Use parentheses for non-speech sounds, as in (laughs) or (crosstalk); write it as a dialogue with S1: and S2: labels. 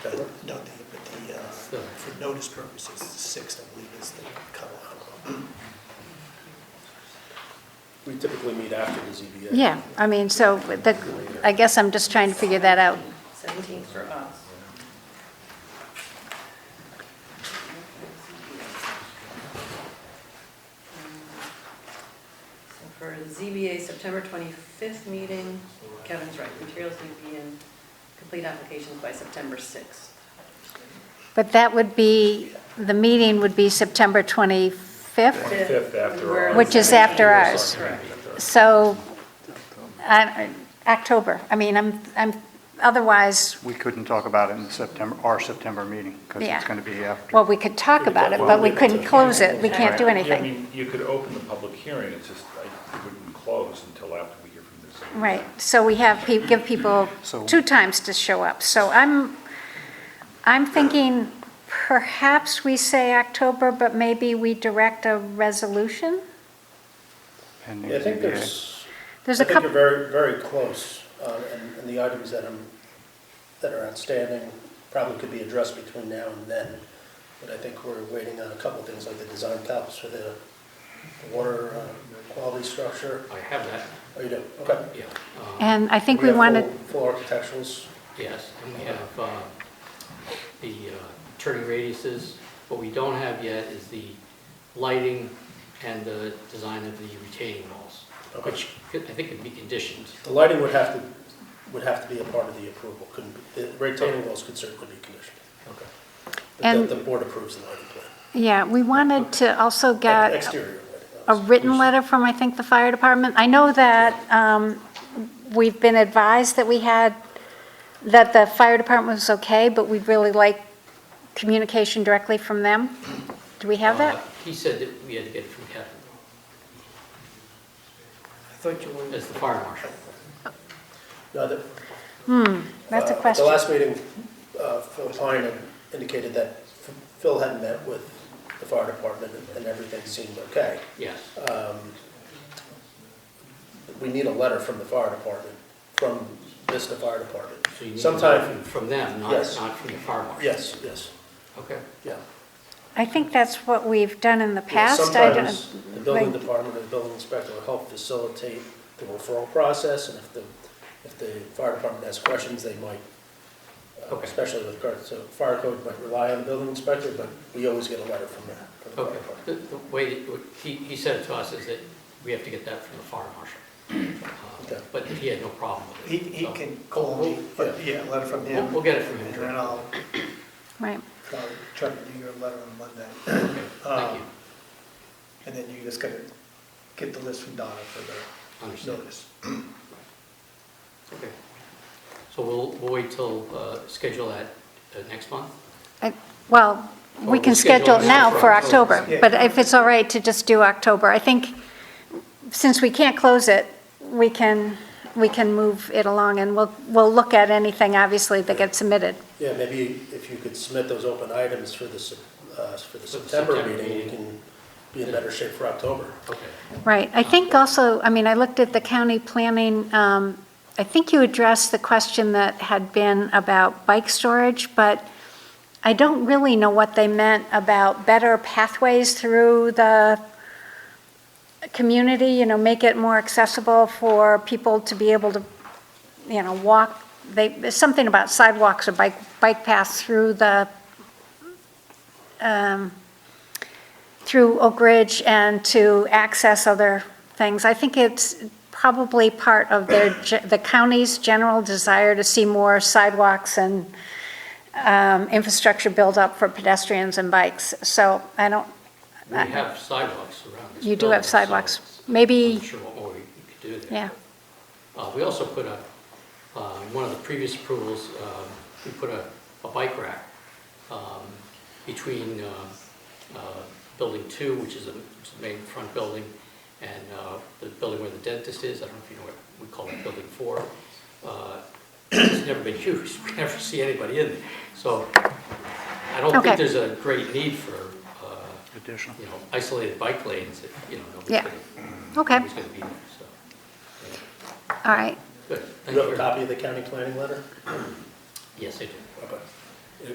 S1: Uh, No, the, but the, uh, for notice purposes, the sixth, I believe, is the cutoff.
S2: We typically meet after the ZBA.
S3: Yeah, I mean, so the, I guess I'm just trying to figure that out.
S4: 17 for us. So for the ZBA, September 25th meeting, Kevin's right, materials need to be in, complete applications by September 6th.
S3: But that would be, the meeting would be September 25th,
S2: 25th after
S4: We're
S2: ours.
S4: on
S3: Which is
S4: the
S3: after
S4: 17th.
S3: ours.
S4: Correct.
S3: so, I- I- October. I mean, I'm, I'm, otherwise,
S5: We couldn't talk about it in September, our September meeting, because
S3: Yeah.
S5: it's going to be after.
S3: well, we could talk about it, but we couldn't close it, we can't do
S6: Yeah, I
S3: anything.
S6: mean, you could open the public hearing, it's just, I it wouldn't close until after we hear from the ZBA.
S3: Right, so we have, pe- give people
S5: So-
S3: two times to show up. So I'm, I'm thinking perhaps we say October, but maybe we direct a resolution?
S5: pending
S2: Yeah, I think
S5: ZBA.
S2: there's, I
S3: There's a
S2: think
S3: couple.
S2: you're very, very close, uh, and and the items that are, that are outstanding probably could be addressed between now and then. But I think we're waiting on a couple things, like the design caps for the the water uh, quality structure.
S7: I have that,
S2: Oh, you do, okay.
S7: yeah. uh,
S3: And I think we
S2: have
S3: wanted,
S2: Full full architecturals,
S7: Yes, and we have uh, the uh, turning radiuses. What we don't have yet is the lighting and the design of the retaining walls,
S2: okay.
S7: which could- I think could be conditioned.
S2: The lighting would have to, would have to be a part of the approval, couldn't, be- the retaining walls could certainly be conditioned. Okay.
S3: And-
S2: But The the board approves the lighting plan.
S3: yeah, we wanted to also get
S2: Exterior
S3: a
S2: lighting.
S3: written letter from, I think, the fire department. I know that um, we've been advised that we had, that the fire department was okay, but we'd really like communication directly from them. Do we have
S7: Uh,
S3: that?
S7: He said that we had to get it from Kevin,
S1: I thought you were,
S7: as the fire marshal.
S2: No, the-
S3: That's a
S2: uh,
S3: question.
S2: At the last meeting, uh, Phil Pine had indicated that F- Phil had met with the fire department and- and everything seemed okay.
S7: Yes,
S2: We need a letter from the fire department, from Vista Fire Department.
S7: so you need to
S2: Sometime-
S7: know from- from them, not
S2: Yes.
S7: not from the fire marshal.
S2: Yes, yes,
S7: Okay.
S2: yeah.
S3: I think that's what we've done in the
S2: Yeah,
S3: past. I don't-
S2: Sometimes the building
S3: like-
S2: department or the building inspector will help facilitate the referral process, and if the, if the fire department has questions, they might, uh,
S7: Okay.
S2: especially with regards to fire code, might rely on the building inspector, but we always get a letter from the, from the fire
S7: Okay,
S2: department.
S7: the, the way, that- what he, he said it to us is that we have to get that from the fire marshal. Uh,
S2: Okay.
S7: But he had no problem with
S1: he,
S7: it.
S1: he
S7: so
S1: can call me, but yeah, a letter from
S7: We'll,
S1: him.
S7: we'll get it from
S1: And
S7: him.
S1: then I'll,
S3: Right.
S1: I'll try to do your letter on Monday.
S7: (clears throat) Okay,
S1: Uh,
S7: Thank you,
S1: And then you just gotta get the list from Donna for the
S7: understand.
S1: notice.
S7: Okay. So we'll, we'll wait till, uh, schedule that uh, next month?
S3: I- Uh, Well, we
S7: Well,
S3: can schedule
S7: we'll schedule
S3: it
S7: it
S3: now
S7: now
S3: for
S7: for
S3: October,
S1: October.
S3: but if it's all right to just do October, I think, since we can't close it, we can, we can move it along, and we'll, we'll look at anything, obviously, that gets submitted.
S2: Yeah, maybe if you could submit those open items for the, Sep- uh, for the September
S7: September
S2: meeting, we
S7: meeting.
S2: can be in better shape for October.
S7: Okay.
S3: Right, I think also, I mean, I looked at the county planning, um, I think you addressed the question that had been about bike storage, but I don't really know what they meant about better pathways through the community, you know, make it more accessible for people to be able to, you know, walk, they, something about sidewalks or bike, bike paths through the, um, through Oak Ridge and to access other things. I think it's probably part of their, ge- the county's general desire to see more sidewalks and um, infrastructure built up for pedestrians and bikes. So I don't,
S7: We
S3: Uh,
S7: have sidewalks around this
S3: you do have
S7: building, so
S3: sidewalks.
S7: it's-
S3: Maybe-
S7: I'm sure what more we could do
S3: yeah,
S7: there. Uh, we also put a, uh, one of the previous approvals, um, we put a, a bike rack, um, between, uh, uh, building two, which is a, which is the main front building, and, uh, the building where the dentist is, I don't know if you know what we call it, building four. Uh, It's never been used, (laughs) we never see anybody in there, so I don't
S3: Okay.
S7: think there's a great need for, uh,
S5: Additional.
S7: you know, isolated bike lanes, if, you know, nobody's
S3: Yeah.
S7: gonna,
S3: okay,
S7: nobody's gonna be there, so.
S3: all right.
S7: Good,
S2: Do
S7: thank
S2: you
S7: you
S2: have a
S7: very much.
S2: copy of the county planning letter?
S7: Yes, I do.
S2: Okay.